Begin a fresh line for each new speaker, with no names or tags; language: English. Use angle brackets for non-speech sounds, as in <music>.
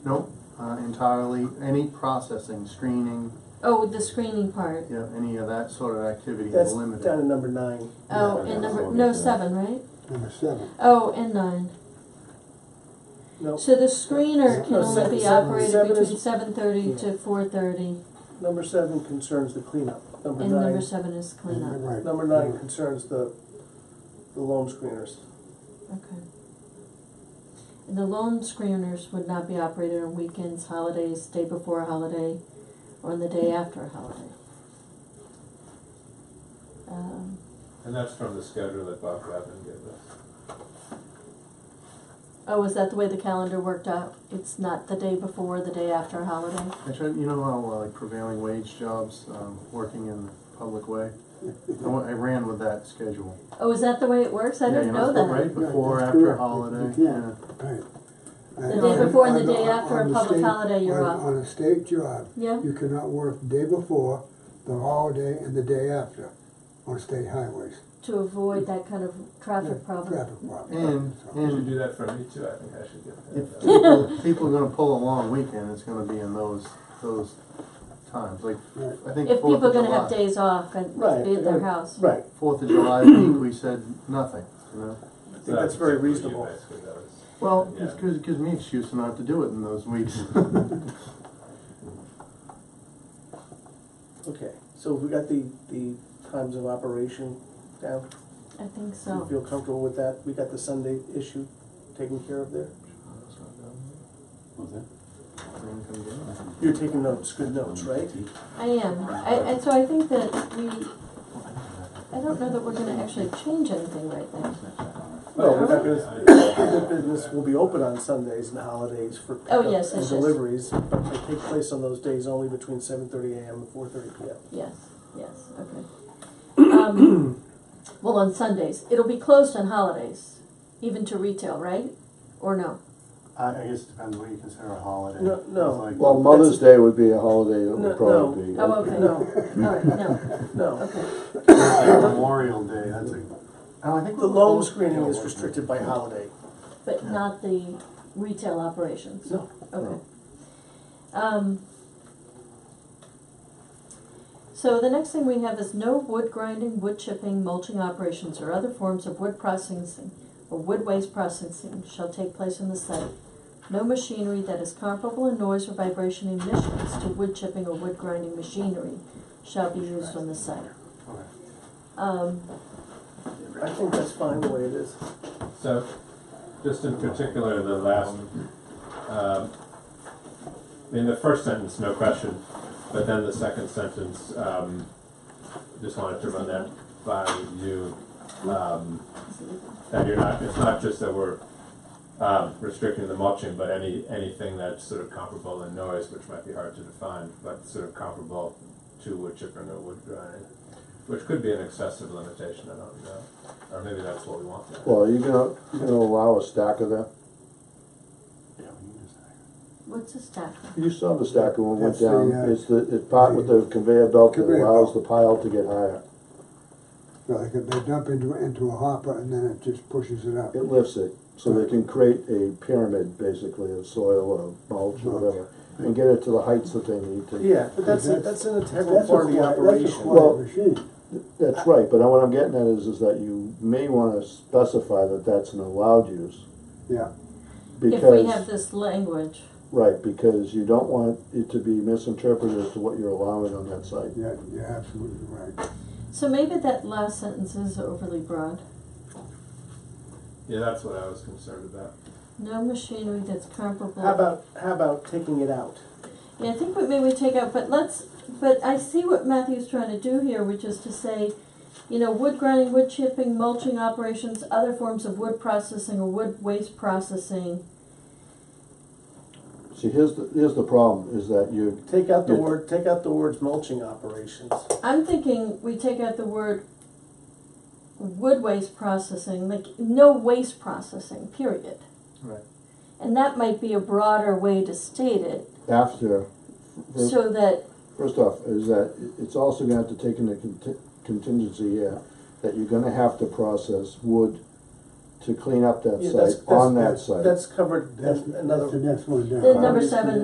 Nope, uh, entirely, any processing, screening,
Oh, the screening part.
you know, any of that sort of activity
That's
is
down
limited.
to number nine.
Oh,
Yeah,
and
that's
number,
what we
no,
said.
seven, right?
Number seven.
Oh, and nine.
No,
So the screener can
No,
only
seven-
be
seven-
operated
seven is-
between seven thirty to four thirty,
number seven concerns the cleanup. Number
and number
nine,
seven is
You're
cleanup.
right.
number nine concerns the, the loan screeners.
Okay. And the loan screeners would not be operated on weekends, holidays, day before a holiday, or on the day after a holiday. Um,
And that's from the schedule that Bob Glavin gave us.
oh, is that the way the calendar worked out? It's not the day before, the day after a holiday?
I tried, you know how uh, like prevailing wage jobs, um, working in the public way? I wa- I ran with that schedule.
Oh, is that the way it works? I
Yeah,
didn't
you
know that.
Right before,
Right, that's
after
correct.
holiday,
You
yeah.
can't. Right.
The day before and the day after a
On the
public
state-
holiday, you're
on-
off.
On a state job,
Yeah,
you cannot work day before, the holiday, and the day after on state highways.
to avoid that kind of traffic
Yeah,
problem.
Traffic problem.
And-
So-
You
and-
should do that for me too, I think I should
If
get that.
people, people are gonna pull a long weekend, it's gonna be in those, those times, like,
Right.
I think
If people
Fourth
are
of
gonna have
July.
days off and
Right,
be at their
and-
house.
Right,
Fourth of July week, we said nothing, you know?
I think that's very reasonable.
Well,
Yeah.
it's 'cause- it gives me excuse to not to do it in those weeks.
Okay, so we got the, the times of operation down.
I think
Do you
so.
feel comfortable with that? We got the Sunday issue taken care of there?
Was that?
You're taking notes, good notes, right?
I am. I, and so I think that we, I don't know that we're gonna actually change anything right now.
No, we're not gonna, the business will be open on Sundays and holidays for
Oh,
pickup
yes,
and
yes, yes.
deliveries, but they take place on those days only between seven thirty AM and four thirty PM.
Yes, yes, okay.
<coughs>
Um, Well, on Sundays. It'll be closed on holidays, even to retail, right? Or no?
I, I guess it depends what you consider a holiday.
No, no.
It's like-
Well, Mother's Day would be a holiday that
No,
would probably be.
Oh, okay. All
No,
right, no,
no,
okay.
Memorial Day, that's a. Oh, I think
the loan screening is restricted by holiday.
But not the retail operations?
No.
Okay. Um, so the next thing we have is no wood grinding, wood chipping, mulching operations, or other forms of wood processing or wood waste processing shall take place on the site. No machinery that is comparable in noise or vibration emissions to wood chipping or wood grinding machinery shall be used on the site.
Okay.
Um,
I think that's fine the way it is.
So, just in particular, the last, um, in the first sentence, no question, but then the second sentence, um, just wanted to run that by you. Um, that you're not, it's not just that we're, um, restricting the mulching, but any, anything that's sort of comparable in noise, which might be hard to define, but sort of comparable to wood chipping or wood grinding, which could be an excessive limitation, I don't know, or maybe that's what we want.
Well, you gonna, you gonna allow a stack of that?
what's this stack?
You saw the stacker when it went
That's the,
down,
uh,
it's the, it's part with the conveyor belt that
Conveyor
allows
belt.
the pile to get higher.
So they could, they dump into, into a hopper and then it just pushes it up.
It lifts it, so they can create a pyramid, basically, of soil or mulch or whatever, and get it to the heights that they need to.
Yeah, but that's, that's an integral
That's a
part of the
quiet- That's a
operation.
quiet
Well-
machine.
That's right, but what I'm getting at is, is that you may wanna specify that that's an allowed use,
Yeah,
If we have
because,
this language,
right, because you don't want it to be misinterpreted as to what you're allowing on that site.
yeah, you're absolutely right.
so maybe that last sentence is overly broad.
Yeah, that's what I was concerned about.
No machinery that's comparable.
How about, how about taking it out?
Yeah, I think what maybe we take out, but let's, but I see what Matthew's trying to do here, which is to say, you know, wood grinding, wood chipping, mulching operations, other forms of wood processing or wood waste processing.
See, here's the, here's the problem, is that you,
Take out the
Yeah.
word, take out the words mulching operations.
I'm thinking we take out the word wood waste processing, like no waste processing, period.
Right.
And that might be a broader way to state it,
after, first,
so that,
first off, is that it- it's also gonna have to uh, take into conti- contingency here, that you're gonna have to process wood
to clean up that
Yeah, that's-
site, on that
that's-
site.
That's covered
That's,
in another
that's the next one down.
The number seven